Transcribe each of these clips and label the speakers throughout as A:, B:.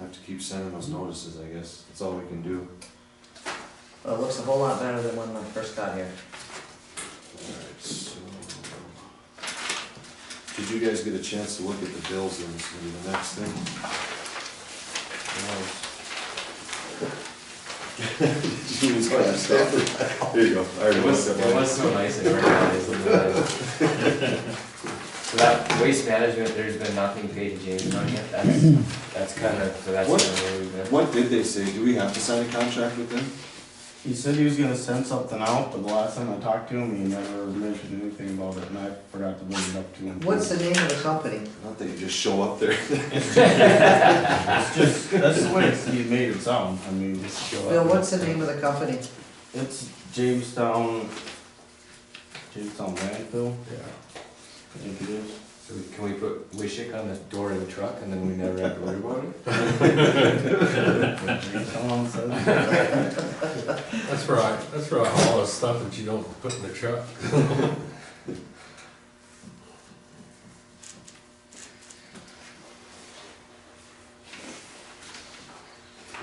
A: Have to keep sending those notices, I guess. That's all we can do.
B: Well, it looks a whole lot better than when I first got here.
A: Alright, so. Did you guys get a chance to look at the bills and this gonna be the next thing? No. You just gotta stop. There you go. I already
C: It was,
A: looked at
C: it
A: mine.
C: was so nice and organized. and then- So that waste management, there's been nothing paid to James on yet, that's, that's kind of, so that's
A: What?
C: kind of where we've been.
A: What did they say? Do we have to sign a contract with them?
D: He said he was gonna send something out, but the last time I talked to him, he never mentioned anything about it, and I forgot to bring it up to him.
B: What's the name of the company?
A: Not that you just show up there.
D: It's just, that's the way it's- he made it sound, I mean,
B: Bill, what's the name of the company?
D: it's Jamestown, Jamestown landfill,
C: Yeah.
D: I think it is.
C: So we- can we put Wishick on the door of the truck and then we never have to worry about it?
D: Jamestown says.
E: That's right, that's right, all the stuff that you don't put in the truck.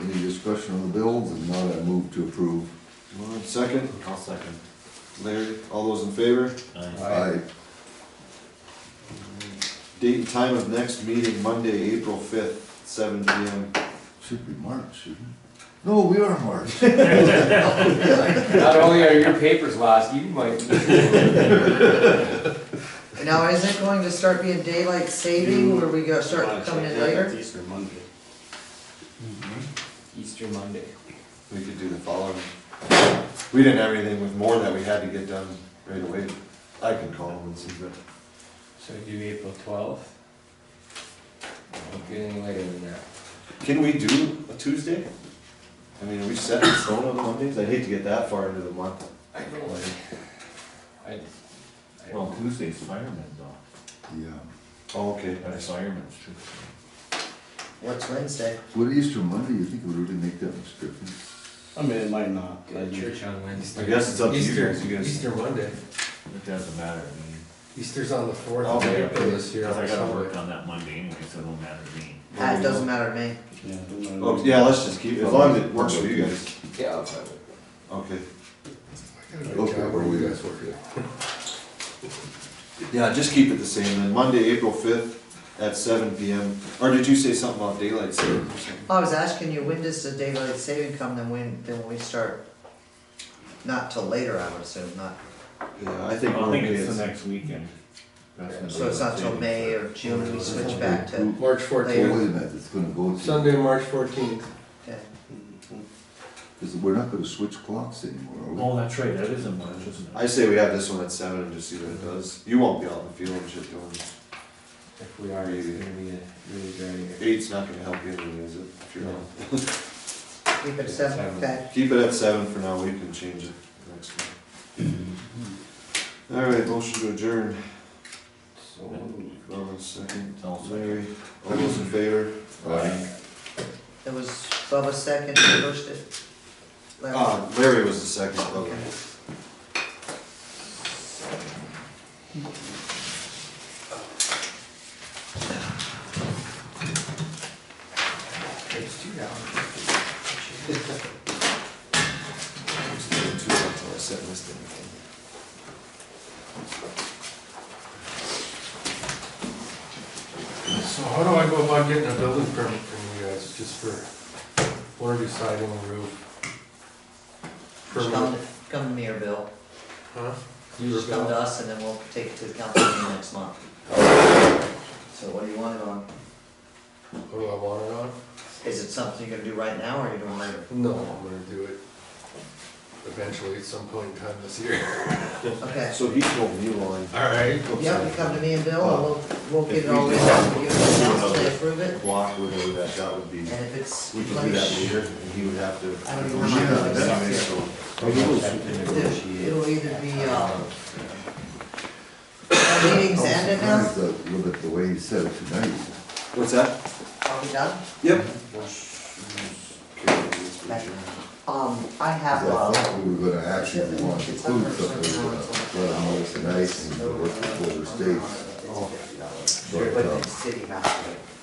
F: Any discussion on the bills, and not I move to approve.
A: One second.
C: I'll second.
A: Larry, all those in favor?
F: Aye.
A: Date and time of next meeting, Monday, April fifth, seven P M.
F: Should be March, shouldn't it? No, we are March.
C: Not only are your papers lost, you might.
B: Now, is it going to start being daylight saving
C: Mm.
B: where we go start coming in later?
D: Easter Monday.
C: Easter Monday.
A: We could do the following. We didn't have anything with more that we had to get done right away. I can call them and see, but
C: So do April twelfth? Don't get any later than that.
A: can we do a Tuesday? I mean, are we set in stone on Mondays? I'd hate to get that far into the month.
C: I don't worry. I, I
G: Well, Tuesday's firemen though,
F: Yeah.
A: Oh, okay.
G: and it's firemen's Tuesday.
B: What's Wednesday?
F: Would Easter Monday, you think it would really make that much difference?
D: I mean, it might not,
C: go
D: I
C: to church on Wednesday.
A: I guess it's up to you
E: Easter,
A: guys, you guys.
E: Easter Monday,
G: It doesn't matter, I mean,
E: Easter's on the fourth
A: Oh,
E: of
A: yeah.
E: April this year.
G: because I gotta
E: so-
G: work on that Monday anyway, so it don't matter to me.
B: Ah, It doesn't matter to me.
D: yeah, it doesn't matter.
A: Oh, yeah, let's just keep, as long as it works for you guys.
C: Yeah, I'll try it.
A: Okay.
E: I gotta go
F: Okay,
E: job.
F: where we guys work at?
A: Yeah, just keep it the same then. Monday, April fifth at seven P M. Or did you say something about daylight savings or something?
B: I was asking you, when does the daylight saving come, then when, then when we start? Not till later, I would assume, not,
A: Yeah, I think
G: I
A: we're
G: think
A: okay.
G: it's the
A: It's-
G: next weekend. That's when
B: so it's not till
G: it's-
B: May or June, we switch back to,
E: March
F: Oh, wait a
E: fourteenth,
F: minute, it's gonna go to,
E: Sunday, March fourteenth.
B: okay.
F: because we're not gonna switch clocks anymore,
G: Oh, that's right, that is in March, isn't
A: I
G: it?
A: say we have this one at seven and just see what it does. You won't be out in the field and shit doing.
C: If we are, it's gonna be a really dry year.
A: Eight's not gonna help you anyway, is it? If you're out.
B: keep it seven, okay?
A: Keep it at seven for now, we can change it next time. Alright, motion to adjourn.
C: So.
A: Robin, second.
G: I'll second.
A: Larry, all those in favor?
F: are we? Aye.
B: It was Bubba second, who first it. Larry.
A: Ah, Larry was the second, Oh, okay.
B: It's two dollars.
A: I was doing two until I set this thing.
E: So how do I go about getting a building permit from you guys, just for floor deciding and roof?
B: Just Come,
E: Permit,
B: to- come to me or Bill.
E: huh?
B: You just come to us and then we'll take it to the council meeting next month. So what do you want it on?
E: What do I want it on?
B: Is it something you're gonna do right now or are you doing later?
E: No, I'm gonna do it eventually at some point in time this year.
B: Okay.
A: So he told me one.
E: Alright.
B: Yep, you come to me and Bill and we'll,
A: Oh.
B: we'll get it all written up, we give it to the council, they approve it,
A: block, whatever that, that would be, we
B: and if it's
A: could do
B: like,
A: that later, and he would have to.
B: I don't even remember.
A: Yeah, so-
B: it'll either be, uh, our meetings ended
F: I'm
B: now, Ah,
F: surprised that- Look at the way he said it tonight.
A: What's that?
B: are we done?
A: Yep.
B: Um, I have,
F: I
B: uh,
F: thought we were gonna actually want to include something, we were gonna let them know it's nice and work with the states.
B: it's
F: But, uh,
B: City Master.